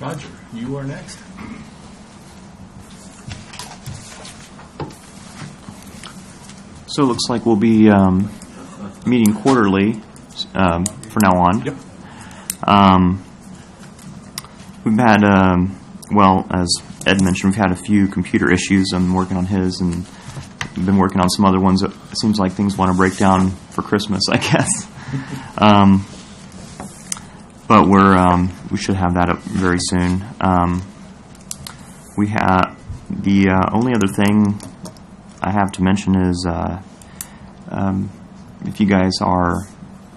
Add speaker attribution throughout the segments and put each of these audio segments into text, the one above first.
Speaker 1: Roger, you are next.
Speaker 2: So it looks like we'll be um, meeting quarterly um, from now on.
Speaker 1: Yep.
Speaker 2: Um, We've had, um, well, as Ed mentioned, we've had a few computer issues. I'm working on his and been working on some other ones. It seems like things want to break down for Christmas, I guess. Um, But we're, um, we should have that up very soon. Um, We have, the uh, only other thing I have to mention is, uh, um, if you guys are,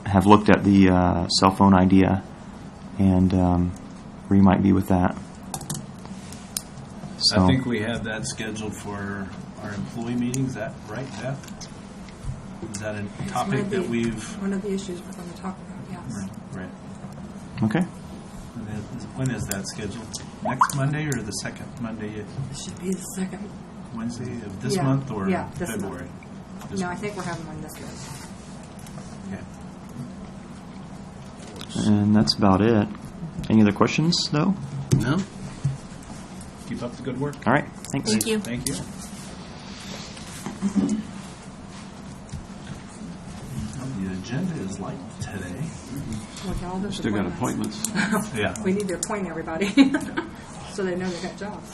Speaker 2: have looked at the uh, cell phone idea and um, where you might be with that. So,
Speaker 1: I think we have that scheduled for our employee meetings, is that right, Beth? Is that a
Speaker 3: It's one
Speaker 1: topic
Speaker 3: of the-
Speaker 1: that we've,
Speaker 3: One of the issues we're going to talk about, yes.
Speaker 1: right,
Speaker 2: Okay,
Speaker 1: And then is- when is that scheduled? Next Monday or the second Monday,
Speaker 3: It should be the second.
Speaker 1: Wednesday of this
Speaker 3: Yeah,
Speaker 1: month or
Speaker 3: yeah, this month.
Speaker 1: February? This
Speaker 3: No, I
Speaker 1: month,
Speaker 3: think we're having one this month.
Speaker 1: okay.
Speaker 2: and that's about it. Any other questions, though?
Speaker 1: No? Keep up the good work.
Speaker 2: All right, thanks.
Speaker 3: you.
Speaker 1: Thank you. The agenda is light today.
Speaker 3: Look at all those
Speaker 4: Still got appointments.
Speaker 1: Yeah.
Speaker 3: We need to appoint everybody, so they know they got jobs.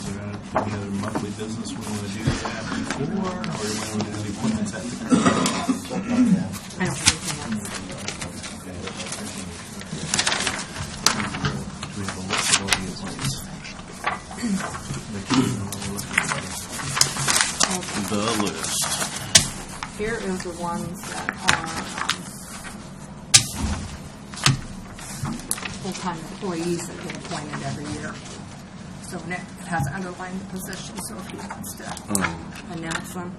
Speaker 1: So Is there any other monthly business we want to do that before, or do we want to do the appointments at the current?
Speaker 3: I don't have anything else.
Speaker 1: Do we have a list of all the appointments?
Speaker 3: Okay,
Speaker 4: The list.
Speaker 3: Here is the ones that are um, full-time employees that get appointed every year. So Nick has underlined the position, so if he wants to
Speaker 4: Oh,
Speaker 3: announce them.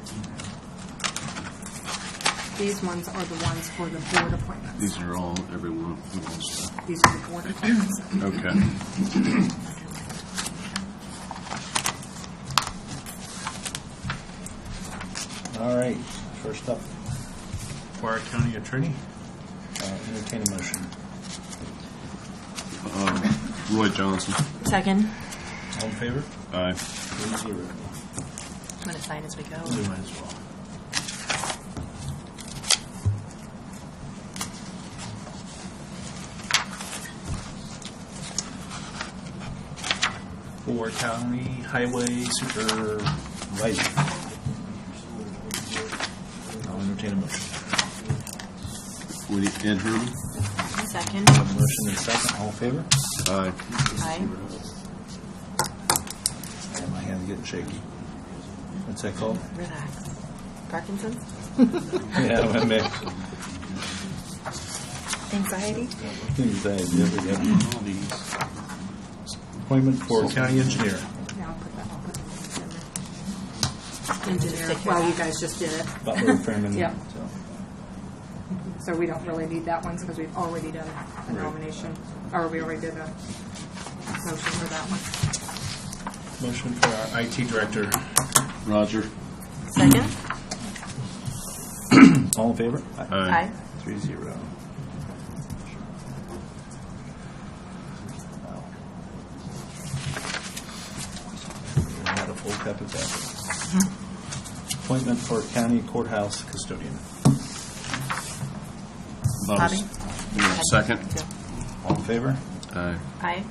Speaker 3: These ones are the ones for the board appointments.
Speaker 4: these are all, every one of them is-
Speaker 3: These are the board appointments.
Speaker 4: Okay.
Speaker 1: All right, first up. For our county attorney, uh, entertain a motion.
Speaker 4: Roy Johnson.
Speaker 5: Second.
Speaker 1: All in favor?
Speaker 4: Aye.
Speaker 1: Three zero.
Speaker 5: I'm going to sign as we go.
Speaker 1: We might as well. For county highway supervisor. I'll entertain a motion.
Speaker 4: Woody Ed Herman.
Speaker 5: Second.
Speaker 1: Motion and second, all in favor?
Speaker 4: Aye.
Speaker 5: Aye.
Speaker 1: Yeah, my hand's getting shaky. What's that called?
Speaker 5: Relax. Parkinson's?
Speaker 1: Yeah, my man.
Speaker 5: Anxiety?
Speaker 1: uh,
Speaker 4: All these.
Speaker 1: Appointment for county engineer.
Speaker 3: Yeah, I'll put that, I'll put that in
Speaker 5: Just
Speaker 3: there.
Speaker 5: take
Speaker 3: Engineer,
Speaker 5: care
Speaker 3: well,
Speaker 5: of
Speaker 3: you
Speaker 5: that.
Speaker 3: guys just did it,
Speaker 1: Butler Freeman.
Speaker 3: Yeah.
Speaker 1: so.
Speaker 3: so we don't really need that one because we've already done a
Speaker 1: Right.
Speaker 3: nomination, or we already did a motion for that one.
Speaker 1: Motion for our IT director.
Speaker 4: Roger.
Speaker 5: Second.
Speaker 1: All in favor?
Speaker 5: Aye.
Speaker 1: Three zero. Not a full cup of coffee. Appointment for county courthouse custodian.
Speaker 4: Bobby.
Speaker 5: Bobby?
Speaker 4: You want a Oh, Second.
Speaker 5: Two.
Speaker 1: All in favor?
Speaker 4: Aye.
Speaker 5: Aye.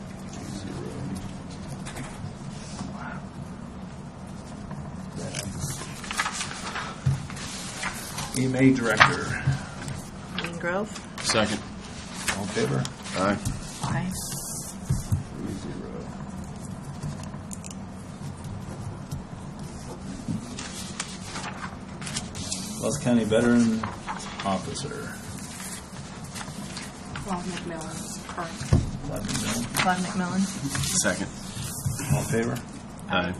Speaker 1: EMA director.
Speaker 5: Green Grove?
Speaker 4: Second.
Speaker 1: All in favor?
Speaker 4: Aye.
Speaker 5: Aye.
Speaker 1: Three zero. Wells County Veteran Officer.
Speaker 3: Well, McMillan's current.
Speaker 1: Eleven mil.
Speaker 5: Claude McMillan?
Speaker 4: Second.
Speaker 1: All in favor?
Speaker 4: Aye.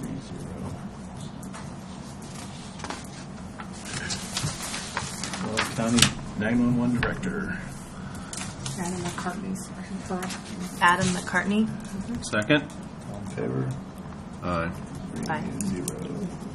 Speaker 1: Three zero. Wells County 911 Director.
Speaker 3: Adam McCartney's current.
Speaker 5: Adam McCartney?
Speaker 4: Second.
Speaker 1: All in favor?
Speaker 4: Aye.
Speaker 1: Three
Speaker 5: Aye.
Speaker 1: zero.